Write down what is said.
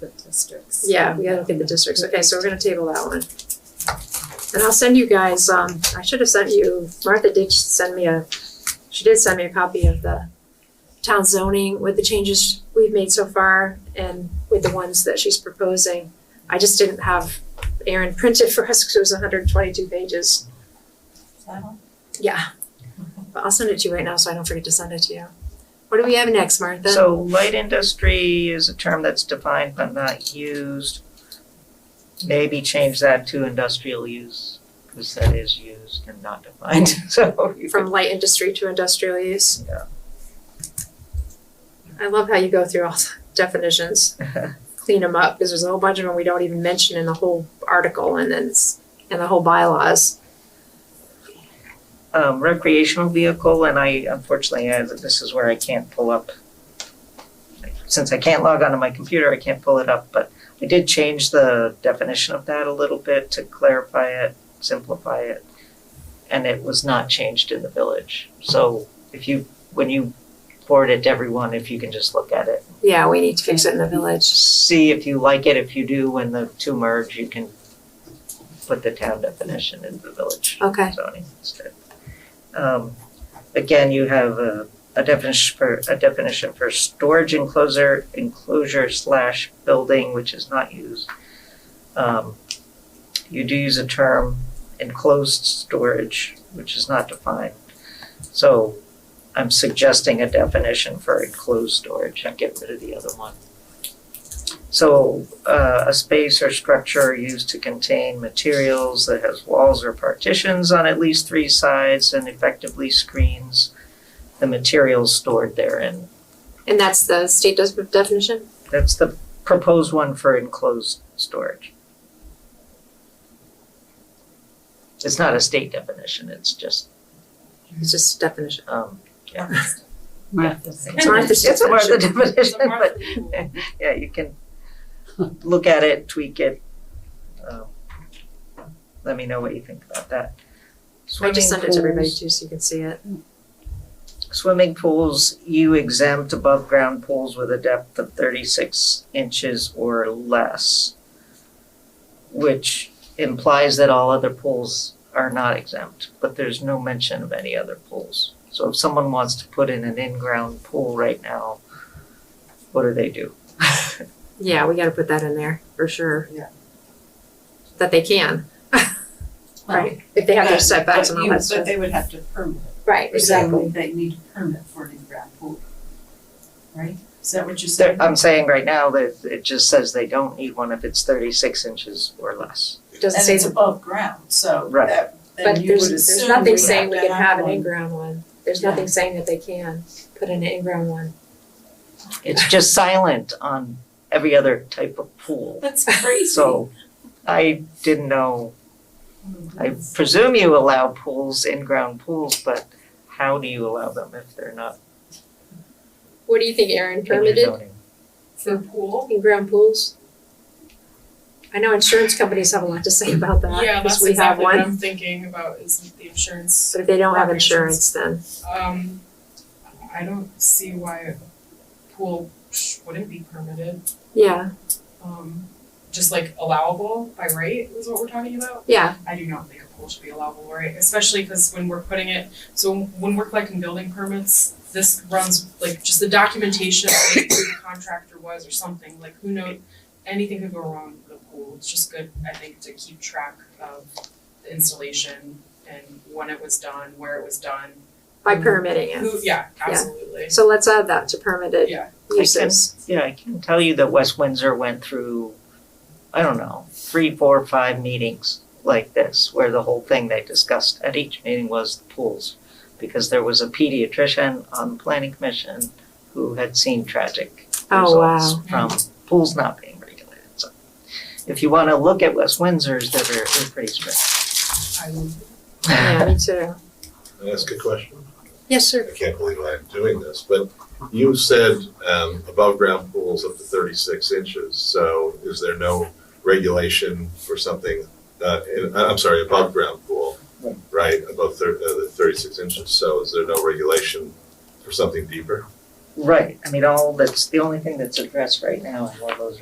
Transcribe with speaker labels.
Speaker 1: the districts.
Speaker 2: Yeah, we gotta look at the districts, okay, so we're gonna table that one. And I'll send you guys, um, I should have sent you, Martha did send me a, she did send me a copy of the town zoning with the changes we've made so far and with the ones that she's proposing. I just didn't have Aaron printed for us, because it was hundred and twenty-two pages. Yeah, but I'll send it to you right now, so I don't forget to send it to you. What do we have next, Martha?
Speaker 3: So light industry is a term that's defined but not used. Maybe change that to industrial use, because that is used and not defined, so. you
Speaker 2: From light industry to industrial use?
Speaker 3: could- yeah.
Speaker 2: I love how you go through all the definitions, clean them up, because there's a whole bunch of them we don't even mention in the whole article and then, s- and the whole bylaws.
Speaker 3: Um, recreational vehicle, and I unfortunately, I- this is where I can't pull up. Since I can't log onto my computer, I can't pull it up, but I did change the definition of that a little bit to clarify it, simplify it. And it was not changed in the village, so if you, when you forward it to everyone, if you can just look at it.
Speaker 2: Yeah, we need to fix it in the village.
Speaker 3: See if you like it, if you do, when the two merge, you can put the town definition in the village
Speaker 2: Okay,
Speaker 3: zoning instead. Um, again, you have a, a definition for, a definition for storage enclosure, enclosure slash building, which is not used. Um, you do use a term enclosed storage, which is not defined. So I'm suggesting a definition for enclosed storage and get rid of the other one. So, uh, a space or structure used to contain materials that has walls or partitions on at least three sides and effectively screens the materials stored therein.
Speaker 2: and that's the state does definition?
Speaker 3: That's the proposed one for enclosed storage. It's not a state definition, it's just,
Speaker 4: Mm-hmm.
Speaker 2: It's just definition.
Speaker 3: um, yeah.
Speaker 2: It's Martha's
Speaker 3: It's a Martha
Speaker 2: definition.
Speaker 3: definition, but yeah, you can look at it, tweak it. Um, Let me know what you think about that.
Speaker 2: I just sent it to everybody
Speaker 3: Swimming
Speaker 2: too,
Speaker 3: pools-
Speaker 2: so you can see it.
Speaker 3: Swimming pools, you exempt above ground pools with a depth of thirty-six inches or less. Which implies that all other pools are not exempt, but there's no mention of any other pools. So if someone wants to put in an in-ground pool right now, what do they do?
Speaker 2: Yeah, we gotta put that in there, for sure.
Speaker 4: Yeah.
Speaker 2: That they can,
Speaker 4: Well,
Speaker 2: right? If they have their
Speaker 4: but-
Speaker 2: setbacks
Speaker 4: but
Speaker 2: and all
Speaker 4: you-
Speaker 2: that
Speaker 4: But
Speaker 2: stuff.
Speaker 4: they would have to permit. it.
Speaker 2: Right, exactly.
Speaker 4: They need a permit for an in-ground pool. Right? Is that what you're
Speaker 3: There-
Speaker 4: saying?
Speaker 3: I'm saying right now that it just says they don't need one if it's thirty-six inches or less.
Speaker 2: Doesn't
Speaker 4: And
Speaker 2: say,
Speaker 4: it's above ground, so
Speaker 3: Right.
Speaker 4: that,
Speaker 2: but
Speaker 4: then you
Speaker 2: there's,
Speaker 4: would
Speaker 2: there's
Speaker 4: assume we
Speaker 2: nothing
Speaker 4: have
Speaker 2: saying we
Speaker 4: to
Speaker 2: can have an
Speaker 4: one.
Speaker 2: in-ground one. There's
Speaker 4: Yeah.
Speaker 2: nothing saying that they can put in an in-ground one.
Speaker 3: It's just silent on every other type of pool.
Speaker 4: That's crazy.
Speaker 3: So I didn't know, I presume you allow pools, in-ground pools, but how do you allow them if they're not
Speaker 2: What do you think, Aaron?
Speaker 3: in your
Speaker 2: Permitted
Speaker 3: zoning?
Speaker 4: The pool?
Speaker 2: in ground pools? I know insurance companies have a lot to say about
Speaker 5: Yeah,
Speaker 2: that, because
Speaker 5: that's
Speaker 2: we have
Speaker 5: exactly what
Speaker 2: one,
Speaker 5: I'm thinking about is the insurance.
Speaker 2: but if they don't have insurance,
Speaker 5: Corporations.
Speaker 2: then,
Speaker 5: Um, I don't see why a pool sh- wouldn't be permitted,
Speaker 2: yeah,
Speaker 5: um, just like allowable by right is what we're talking about.
Speaker 2: yeah,
Speaker 5: I do not think a pool should be allowable, right, especially because when we're putting it, so when we're collecting building permits, this runs, like, just the documentation, of like who the contractor was or something, like, who knows? Anything could go wrong with a pool, it's just good, I think, to keep track of the installation and when it was done, where it was done,
Speaker 2: by
Speaker 5: Mhm.
Speaker 2: permitting it.
Speaker 5: who, yeah, absolutely.
Speaker 2: So let's add that to permitted
Speaker 5: Yeah.
Speaker 2: uses.
Speaker 3: Yeah, I can tell you that West Windsor went through, I don't know, three, four, five meetings like this, where the whole thing they discussed at each meeting was the pools. Because there was a pediatrician on the planning commission who had seen tragic
Speaker 2: Oh, wow.
Speaker 3: results from pools not being regulated, so. If you wanna look at West Windsor's, they're very, they're pretty strict.
Speaker 5: I would,
Speaker 2: Yeah, me too.
Speaker 6: Can I ask a question?
Speaker 2: Yes, sir.
Speaker 6: I can't believe I'm doing this, but you said um, above ground pools up to 36 inches. So is there no regulation for something, uh, in, I- I'm sorry, above ground pool, right, above thir- uh, the 36 inches? So is there no regulation for something deeper?
Speaker 3: Right, I mean, all, that's, the only thing that's addressed right now is all those